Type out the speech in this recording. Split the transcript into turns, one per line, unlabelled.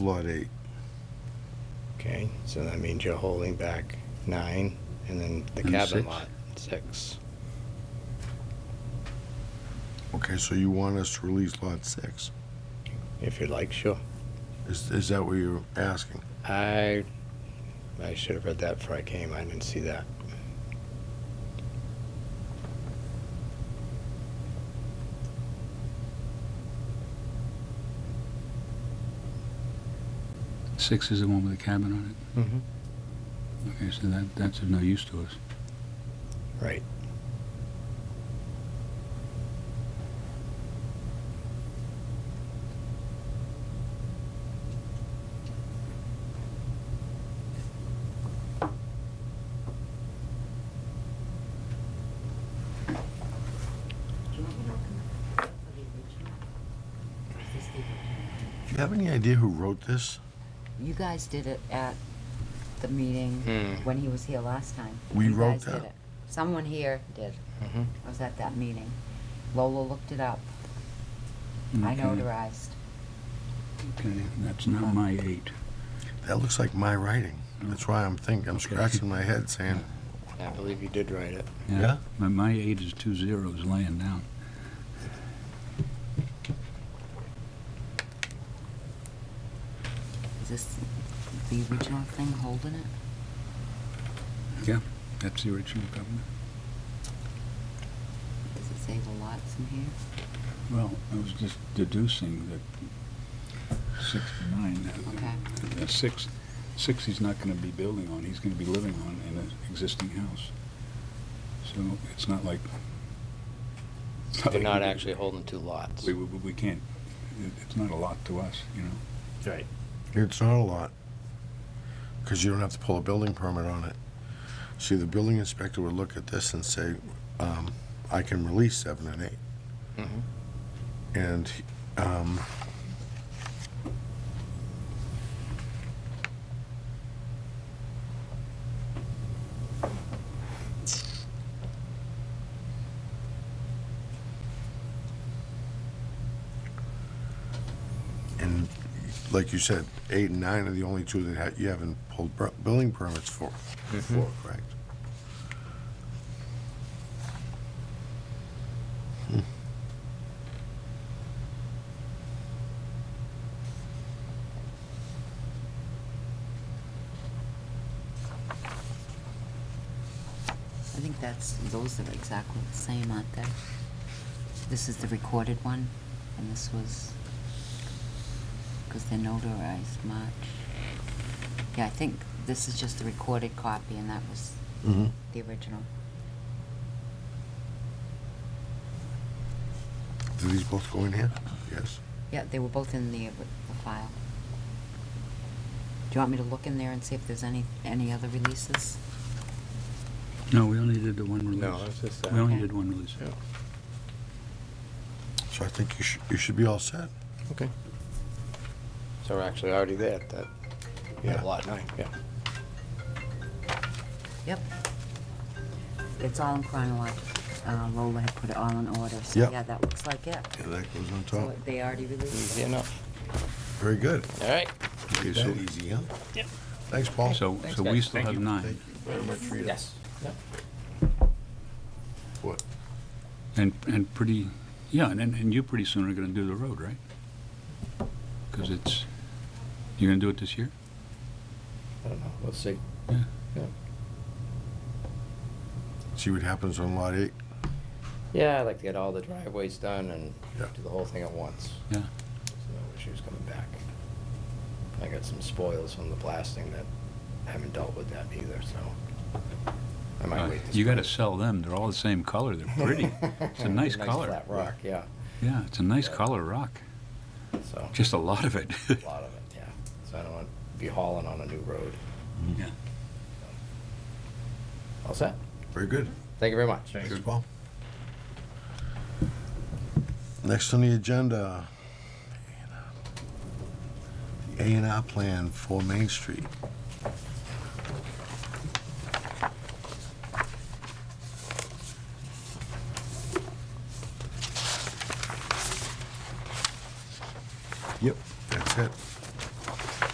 Lot eight.
Okay, so that means you're holding back nine, and then the
And
cabin
six.
lot, six.
Okay, so you want us to release lot six?
If you'd like, sure.
Is, is that what you're asking?
I, I should have read that before I came, I didn't see that.
Six is the one with the cabin on it. Okay, so that, that's of no use to us.
Right,
Do you want me to open the file for the original? Or is this the original?
Do you have any idea who wrote this?
You guys did it at the meeting
Hmm.
when he was here last time.
We
You
wrote
guys did
that?
it. Someone here did.
Mhm.
I was at that meeting. Lola looked it up.
Mm,
I
Okay,
notarized.
Okay, that's not my eight.
That looks like my writing. That's why I'm thinking, I'm
Okay.
scratching my head saying,
I believe you did write it.
Yeah?
My, my eight is two zeros laying down.
Is this the original thing holding it?
That's the original covenant.
Does it say the lots in here?
Well, I was just deducing that six to nine,
Okay.
that, that six, six he's not gonna be building on, he's gonna be living on in an existing house. So it's not like. it's
They're
like
not
we-
actually holding two lots.
We, we, we can't, it- it's not a lot to us, you know?
Right.
it's not a lot. Because you don't have to pull a building permit on it. See, the building inspector would look at this and say, um, I can release seven and eight.
Mhm.
And, um, and like you said, eight and nine are the only two that ha- you haven't pulled per- building permits for, for, correct?
I think that's, those are exactly the same, aren't they? This is the recorded one, and this was, because they're notarized March. Yeah, I think this is just the recorded copy, and that was
Mm-hmm.
the original.
Do these both go in here? Yes.
Yeah, they were both in the, the file. Do you want me to look in there and see if there's any, any other releases?
No, we only did the one release.
No, it's just
We
that.
only
Okay.
did one release.
Yeah.
So I think you should, you should be all set.
Okay. So we're actually already there at that,
Yeah.
yeah, lot nine, yeah.
Yep. It's all in chronological. Uh, Lola had put it all in order, so
Yep.
yeah, that looks like it.
Yeah, that goes on
So
top.
it- they already released
Easy
it?
enough.
Very good.
All right.
Okay, so
so-
easy, huh? Yep. Thanks, Paul.
So,
Thanks,
so we
guys.
still
Thank
have
you.
nine.
Very much for your-
Yep.
What?
And, and pretty, yeah, and, and and you pretty soon are gonna do the road, right? Because it's, you're gonna do it this year?
I don't know, let's see.
Yeah.
Yeah.
See what happens on lot eight?
Yeah, I'd like to get all the driveways done and
Yeah.
do the whole thing at once.
Yeah.
So no issues coming back. I got some spoils from the blasting that I haven't dealt with that either, so I might
Uh,
wait. this
You gotta
spring.
sell them, they're all the same color, they're pretty. It's a nice color.
flat rock, yeah,
Yeah, it's a nice
Yeah.
color rock,
so,
just a lot of it.
a lot of it, yeah. So I don't want to be hauling on a new road.
Yeah.
All set?
Very good.
Thank you very much.
Thanks, Paul. Next on the agenda, A and R plan for Main Street.